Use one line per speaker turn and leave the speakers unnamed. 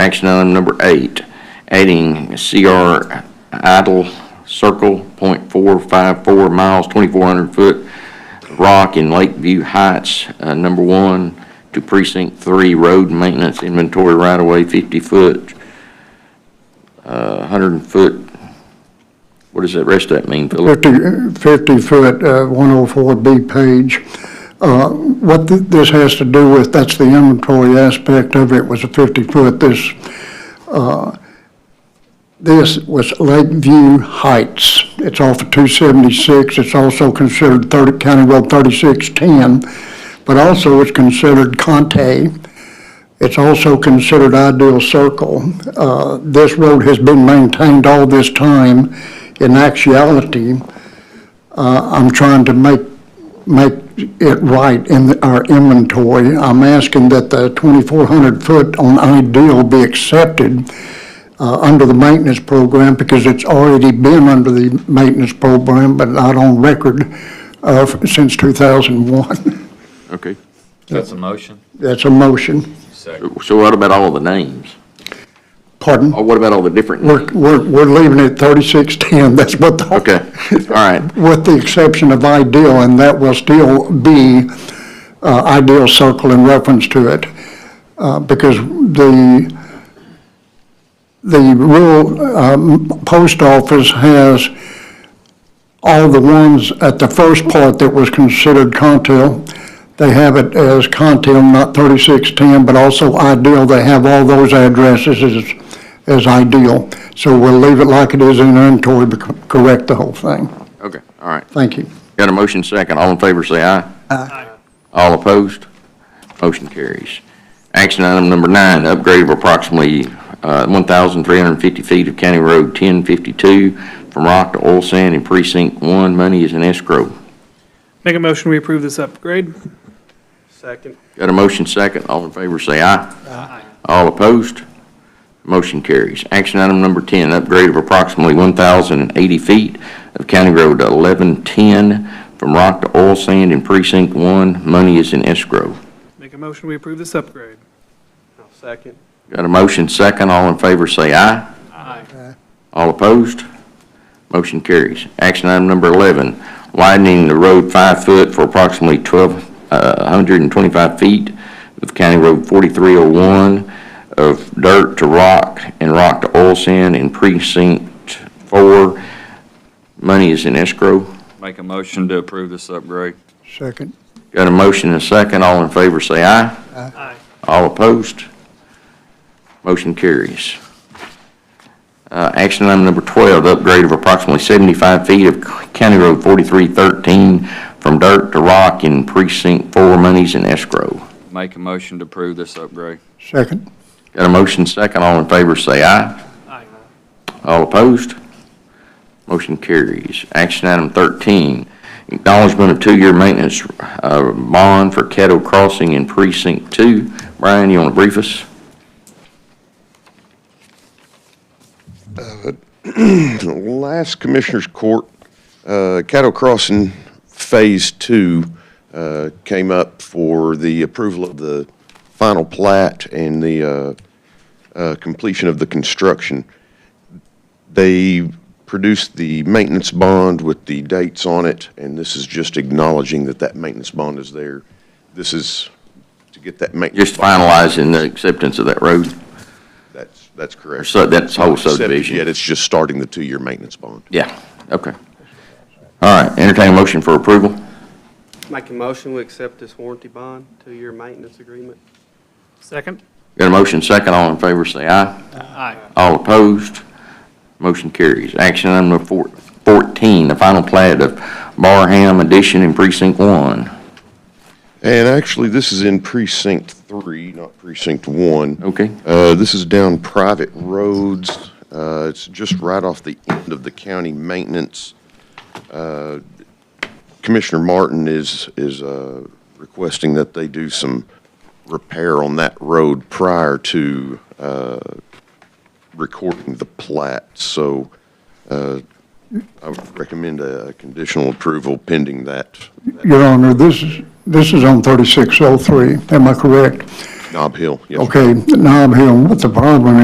action item number eight, adding CR idle circle, point four five four miles, twenty-four hundred foot rock in Lakeview Heights, uh, number one, to precinct three, road maintenance inventory right-of-way, fifty foot, uh, hundred foot, what does that rest of that mean, Philip?
50, 50-foot, 104B page. Uh, What th- this has to do with, that's the inventory aspect of it, was a 50-foot. This, uh, this was Lakeview Heights. It's off of 276. It's also considered 30, County Road 3610, but also it's considered Conte. It's also considered Ideal Circle. Uh, This road has been maintained all this time. In actuality, uh, I'm trying to make, make it right in the- our inventory. I'm asking that the 2,400 foot on Ideal be accepted uh, under the maintenance program because it's already been under the maintenance program, but not on record uh, since 2001.
Okay.
That's a motion?
That's a motion.
Second.
So what about all the names?
Pardon?
Or what about all the different
We're,
names?
we're, we're leaving it thirty-six ten, that's what the.
Okay, all right.
With the exception of ideal, and that will still be, uh, ideal circle in reference to it. Uh, because the, the rural, um, post office has all the ones at the first part that was considered Contil. They have it as Contil, not thirty-six ten, but also ideal, they have all those addresses as as ideal. So we'll leave it like it is in inventory, but co- correct the whole thing.
Okay, all right.
Thank you.
Got a motion second. All in favor, say aye. Aye. All opposed? Motion carries. Action item number nine, upgrade of approximately uh, 1,350 feet of County Road 1052 from rock to oil sand in precinct one. Money is in escrow.
Make a motion, we approve this upgrade.
Second.
Got a motion second. All in favor, say aye. Aye. All opposed? Motion carries. Action item number 10, upgrade of approximately 1,080 feet of County Road 1110 from rock to oil sand in precinct one. Money is in escrow.
Make a motion, we approve this upgrade.
I'll second.
Got a motion second, all in favor say aye.
Aye.
All opposed? Motion carries. Action item number 11, widening the road five foot for approximately 12, uh, 125 feet of County Road 4301 of dirt to rock and rock to oil sand in precinct four. Money is in escrow.
Make a motion to approve this upgrade.
Second.
Got a motion and a second, all in favor say aye.
Aye.
All opposed? Motion carries. Uh, Action item number 12, upgrade of approximately 75 feet of County Road 4313 from dirt to rock in precinct four, monies in escrow.
Make a motion to approve this upgrade.
Second.
Got a motion second, all in favor say aye.
Aye.
All opposed? Motion carries. Action item 13, acknowledgement of two-year maintenance uh, bond for Caddo Crossing in precinct two. Brian, you want to brief us?
last Commissioners Court, uh, Caddo Crossing Phase Two uh, came up for the approval of the final plat and the uh, uh, completion of the construction. They produced the maintenance bond with the dates on it, and this is just acknowledging that that maintenance bond is there. This is to get that maintenance.
Just finalizing the acceptance of that road,
That's, that's
or
correct.
so, that's whole
Except Yet
subdivision?
it's just starting the two-year maintenance bond.
Yeah, okay. All right, entertain a motion for approval.
Make a motion, we accept this warranty bond, two-year maintenance agreement.
Second?
Got a motion second, all in favor, say aye.
Aye.
All opposed, motion carries. Action item number four- 14, the final plat of Barham Addition in Precinct 1.
And actually, this is in precinct three, not precinct one.
Okay.
Uh, this is down private roads. Uh, it's just right off the end of the county maintenance. Uh, Commissioner Martin is, is, uh, requesting that they do some repair on that road prior to, uh, recording the plat. So, uh, I would recommend a conditional approval pending that
Your Honor, this is, this is on thirty-six oh three, am I correct?
Knob Hill. Yes, sir.
Okay, now I'm hearing what the problem